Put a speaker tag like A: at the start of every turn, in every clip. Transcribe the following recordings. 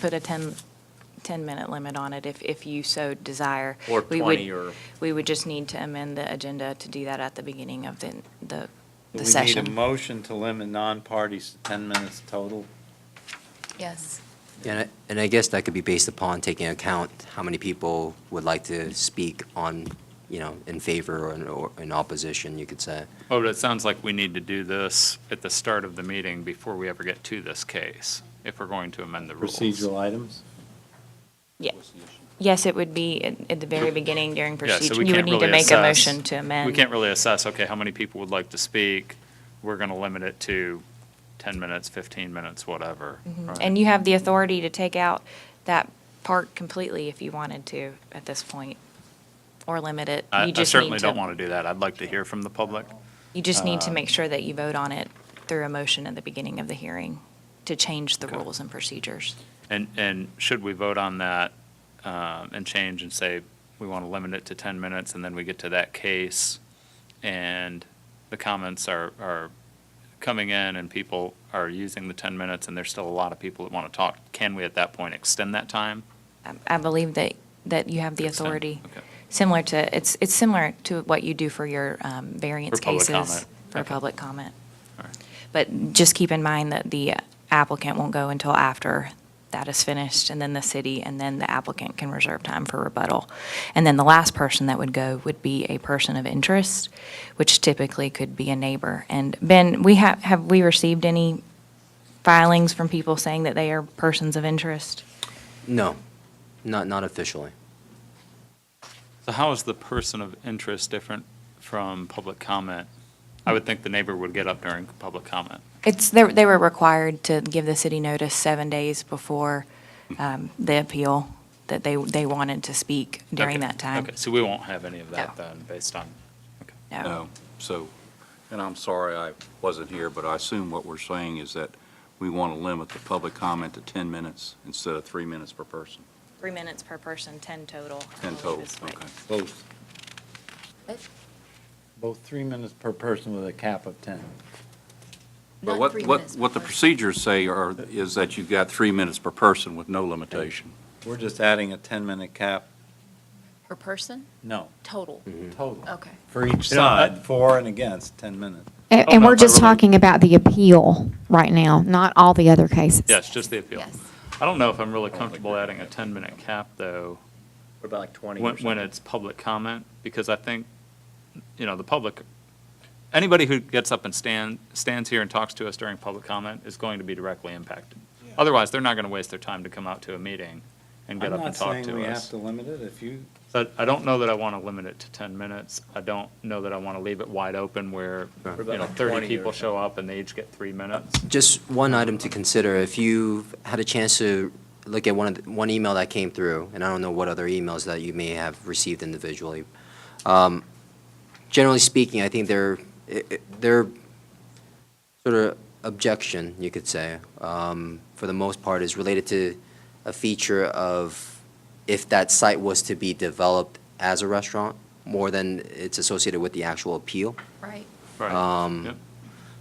A: put a 10, 10-minute limit on it if, if you so desire.
B: Or
A: We would-
B: 20 or-
A: We would just need to amend the agenda to do that at the beginning of the, the
C: Do
A: the
C: We need a
A: session.
C: motion to limit non-parties to 10 minutes total.
A: Yes.
D: And I, and I guess that could be based upon taking account how many people would like to speak on, you know, in favor or in, or in opposition, you could say.
E: Oh, but it sounds like we need to do this at the start of the meeting before we ever get to this case, if we're going to amend the rules.
C: Procedural items?
A: Yeah. Yes, it would be at, at the very beginning during
E: Yeah, so
A: procedure.
E: we
A: You would
E: can't
A: need to
E: really
A: make a
E: assess-
A: motion to amend.
E: We can't really assess, okay, how many people would like to speak? We're going to limit it to 10 minutes, 15 minutes, whatever. right?
A: Mm-hmm. And you have the authority to take out that part completely if you wanted to at this point, or limit it.
E: I-
A: You
E: I
A: just
E: certainly
A: need
E: don't want to do that. I'd like to hear from the public.
A: You just need to make sure that you vote on it through a motion at the beginning of the hearing to change the
E: Okay.
A: rules and procedures.
E: And, and should we vote on that um, and change and say, we want to limit it to 10 minutes, and then we get to that case, and the comments are, are coming in, and people are using the 10 minutes, and there's still a lot of people that want to talk, can we at that point extend that time?
A: I- I believe that, that you have the
E: Extend,
A: authority,
E: okay.
A: similar to, it's, it's similar to what you do for your um, variance
E: For public
A: cases.
E: comment,
A: For
E: okay.
A: public comment.
E: All right.
A: But just keep in mind that the applicant won't go until after that is finished, and then the city, and then the applicant can reserve time for rebuttal. And then the last person that would go would be a person of interest, which typically could be a neighbor. And Ben, we have, have we received any filings from people saying that they are persons of interest?
D: No, not, not officially.
E: So how is the person of interest different from public comment? I would think the neighbor would get up during public comment.
A: It's, they, they were required to give the city notice seven days before um, the appeal, that they, they wanted to speak during
E: Okay,
A: that time.
E: Okay, so we won't have any of that
A: No.
E: then, based on, okay.
A: No.
F: No, Um, so, and I'm sorry I wasn't here, but I assume what we're saying is that we want to limit the public comment to 10 minutes instead of three minutes per person,
A: Three minutes per person, 10 total.
F: 10 total, okay.
C: Both. Both three minutes per person with a cap of 10.
F: But what, what, what the procedures say are, is that you've got three minutes per person with no limitation.
C: We're just adding a 10-minute cap,
G: Per person? Mm.
C: no,
G: Total?
C: total.
A: Oh.
G: Okay.
C: For each
E: Mm-hmm. You know, I-
C: side, for and against, 10 minutes.
H: And,
E: Oh,
H: and
E: no,
H: we're
E: but
H: just
E: really-
H: talking about the appeal right now, not all the other cases.
E: Yes, just the appeal.
G: Yes.
E: I don't know if I'm really comfortable adding a 10-minute cap, though,
B: What about like 20
E: when, when it's public comment, because I think, you know, the public, anybody who gets up and stand, stands here and talks to us during public comment is going to be directly impacted. Otherwise, they're not going to waste their time to come out to a meeting and get up and talk
C: I'm not saying
E: to
C: we have
E: us.
C: to limit it, if you,
E: But I don't know that I want to limit it to 10 minutes. I don't know that I want to leave it wide open where,
D: Right.
E: you know,
B: About
E: 30
B: 20 or
E: people show up and they each get three minutes.
D: Just one item to consider, if you've had a chance to look at one of, the- one email that came through, and I don't know what other emails that you may have received individually. um, Generally speaking, I think their, i- i- their sort of objection, you could say, um, for the most part, is related to a feature of if that site was to be developed as a restaurant, more than it's associated with the actual appeal.
G: Right.
D: Um,
E: Yep.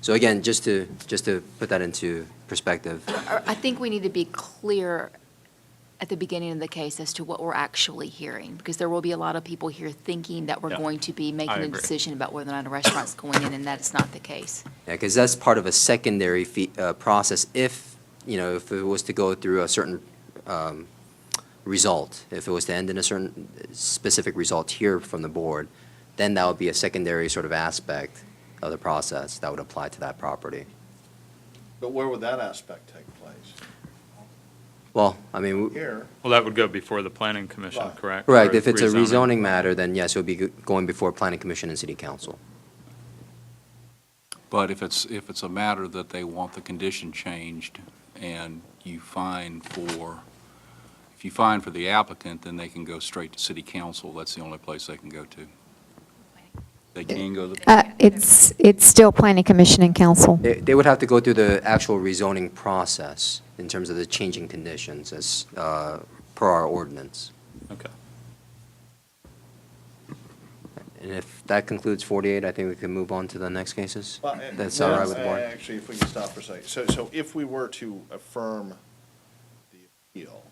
D: So again, just to, just to put that into perspective.
G: Or I think we need to be clear at the beginning of the case as to what we're actually hearing, because there will be a lot of people here thinking that we're
E: Yeah.
G: going to be making a
E: agree.
G: decision about whether or not a restaurant's going in, and that's not the case.
D: Yeah, because that's part of a secondary fee, uh, process if, you know, if it was to go through a certain, um, result, if it was to end in a certain specific result here from the board, then that would be a secondary sort of aspect of the process that would apply to that property.
I: But where would that aspect take place?
D: Well, I mean, w-
I: Here,
E: Well, that would go before the planning commission,
I: Right.
E: correct?
D: correct,
E: Or
D: if it's a rezoning matter, then yes, it would be go- going before planning commission and city council.
F: But if it's, if it's a matter that they want the condition changed and you find for, if you find for the applicant, then they can go straight to city council. That's the only place they can go to. They can go to the
H: Uh, it's, it's still planning commission and council.
D: They, they would have to go through the actual rezoning process in terms of the changing conditions as, uh, per our ordinance.
E: Okay.
D: And if that concludes 48, I think we can move on to the next cases?
I: Well, uh,
D: That's all right
I: well,
D: with the
I: uh,
D: board?
I: Actually, if we can stop for a second. So, so if we were to affirm the appeal.